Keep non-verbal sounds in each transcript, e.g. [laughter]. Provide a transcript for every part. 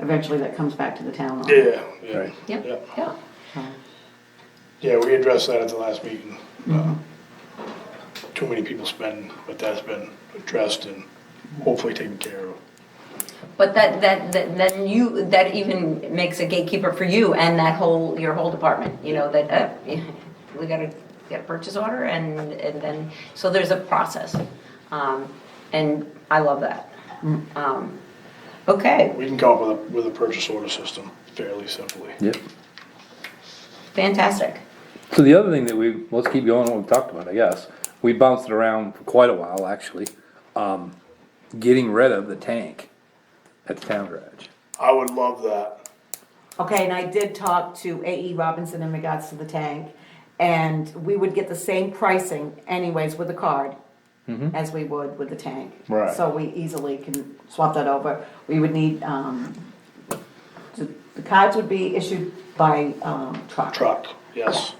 eventually that comes back to the town. line. Yeah, yeah, Right. Yeah. Yep, yep. So, yeah, we addressed that at the last meeting. Uh, Too many people spend, but that's been addressed and hopefully taken care of. But that, that, that, then you, that even makes a gatekeeper for you and that whole, your whole department, you know, that, uh, [laughs] we gotta get a purchase order and, and then, so there's a process. Um, and I love that. Um, okay, We can come up with a, with a purchase order system fairly simply. Yep. fantastic. So the other thing that we, let's keep going on what we talked about, I guess. We bounced it around for quite a while, actually. Um, getting rid of the tank at the town garage. I would love that. Okay, and I did talk to AE Robinson in regards to the tank, and we would get the same pricing anyways with the card as we would with the tank. Right. So we easily can swap that over. We would need, um, the the cards would be issued by, um, truck. Truck, yes,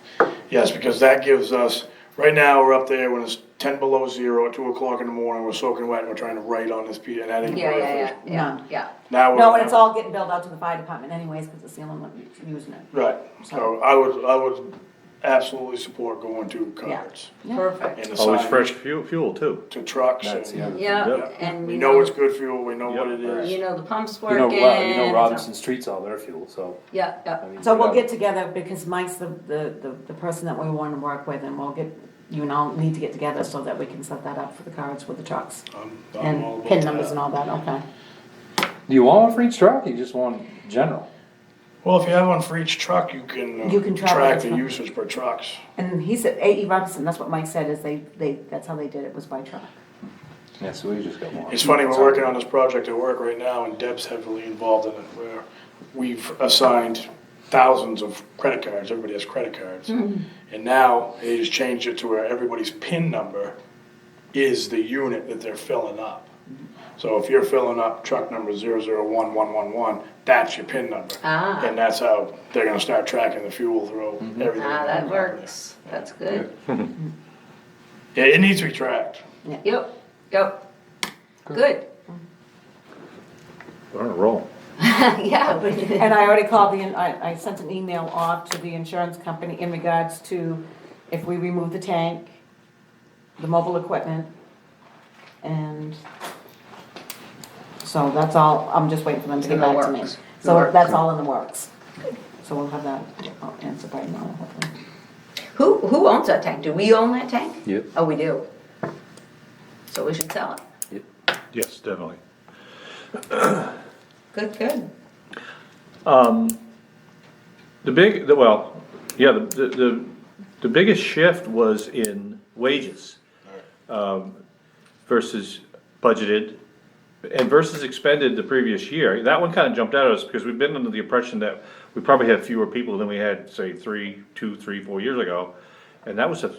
yes, because that gives us, right now, we're up there when it's ten below zero at two o'clock in the morning, we're soaking wet and we're trying to write on this piece and that ain't. Yeah, worth yeah, it. yeah, yeah, No. yeah. Now we're. No, and it's all getting billed out to the fire department anyways, cause it's the only one using it. Right, so I would, I would absolutely support going to cards Perfect. and the Always sign Oh, fresh fuel, fuel too. to trucks. That's the and- other. Yeah, Yep. and. We know it's good fuel, we know Yep. what it You is. know, the pump's You know, working. well, you know Robinson Street's all their fuel, so. Yeah, I yeah. mean, So you we'll gotta- get together because Mike's the, the, the, the person that we want to work with and we'll get, you and I'll need to get together so that we can set that up for the cards with the trucks. I'm- I'm all And about pin numbers that. and all that, okay. Do you want one for each truck or you just want general? Well, if you have one for each truck, you can. uh, You can track Track each the one. usage per trucks. And he said, A.E. Robinson, that's what Mike said, is they, they, that's how they did it, was by truck. Yeah, so we just got one. It's funny, we're working on this project at work right now and Deb's heavily involved in it where we've assigned thousands of credit cards, everybody has credit cards. Mm-hmm. And now they just changed it to where everybody's PIN number is the unit that they're filling up. So if you're filling up truck number zero zero one one one one, that's your PIN number. Ah. And that's how they're gonna start tracking the fuel through everything. Ah, that works. That's good. Yeah, it needs to be tracked. Yep, yep. Good. We're on a roll. [laughs] Yeah. we- And I already called the, I, I sent an email off to the insurance company in regards to if we remove the tank, the mobile equipment, and so that's all, I'm just waiting for them to get In the back to me. works. So Works. that's all in the works. So we'll have that uh, answer by now, hopefully. Who, who owns that tank? Do we own that tank? Yep. Oh, we do. So we should sell it. Yes, definitely. Good, good. The big, the, well, yeah, the, the, the, the biggest shift was in wages. um, Versus budgeted and versus expended the previous year. That one kinda jumped out at us because we've been under the impression that we probably had fewer people than we had, say, three, two, three, four years ago. And that was a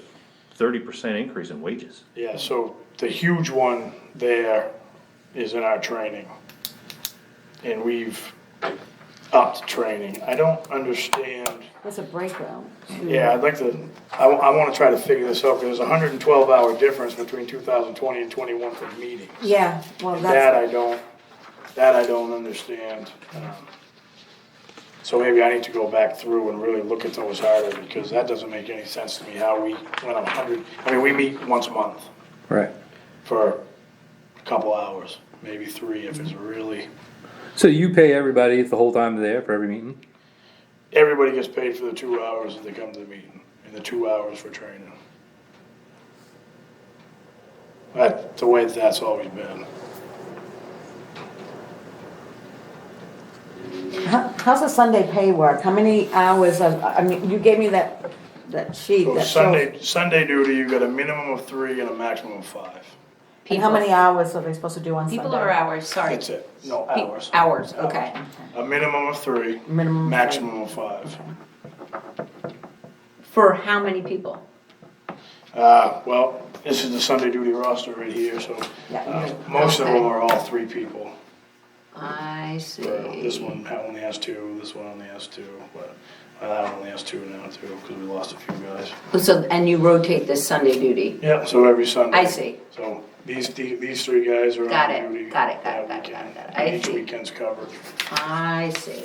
thirty percent increase in wages. Yeah, so the huge one there is in our training. And we've upped training. I don't understand, There's a breakdown. to- yeah, I'd like to, I, wa- I wanna try to figure this out, cause there's a hundred and twelve hour difference between two thousand twenty and twenty-one for meetings. Yeah, well, And that that's, I don't, that I don't understand. Um, So maybe I need to go back through and really look at those harder, because that doesn't make any sense to me, how we went a hundred, I mean, we meet once a month Right. for a couple hours, maybe three if it's really. So you pay everybody the whole time they're there for every meeting? Everybody gets paid for the two hours that they come to the meeting and the two hours for training. That's the way that's always been. how- how's the Sunday pay work? How many hours, of- I mean, you gave me that, that sheet So that shows. Sunday, Sunday duty, you got a minimum of three and a maximum of five. And how many hours are they supposed to do on Sunday? People or hours, sorry. That's it, no Pe- hours. Hours, okay. A minimum of three, Minimum of five. maximum of five. For how many people? Uh, well, this is the Sunday duty roster right here, so, Yeah, uh, you- most of them are all three people. I see. Uh, This one ha- only has two, this one only has two, but uh, that one only has two now too, because we lost a few guys. So, and you rotate this Sunday duty? Yeah, so every Sunday. I see. So these, the- these three guys are Got on it, duty. got it, got it, that got it, got it, weekend. got it. I Each see. weekend's covered. I see.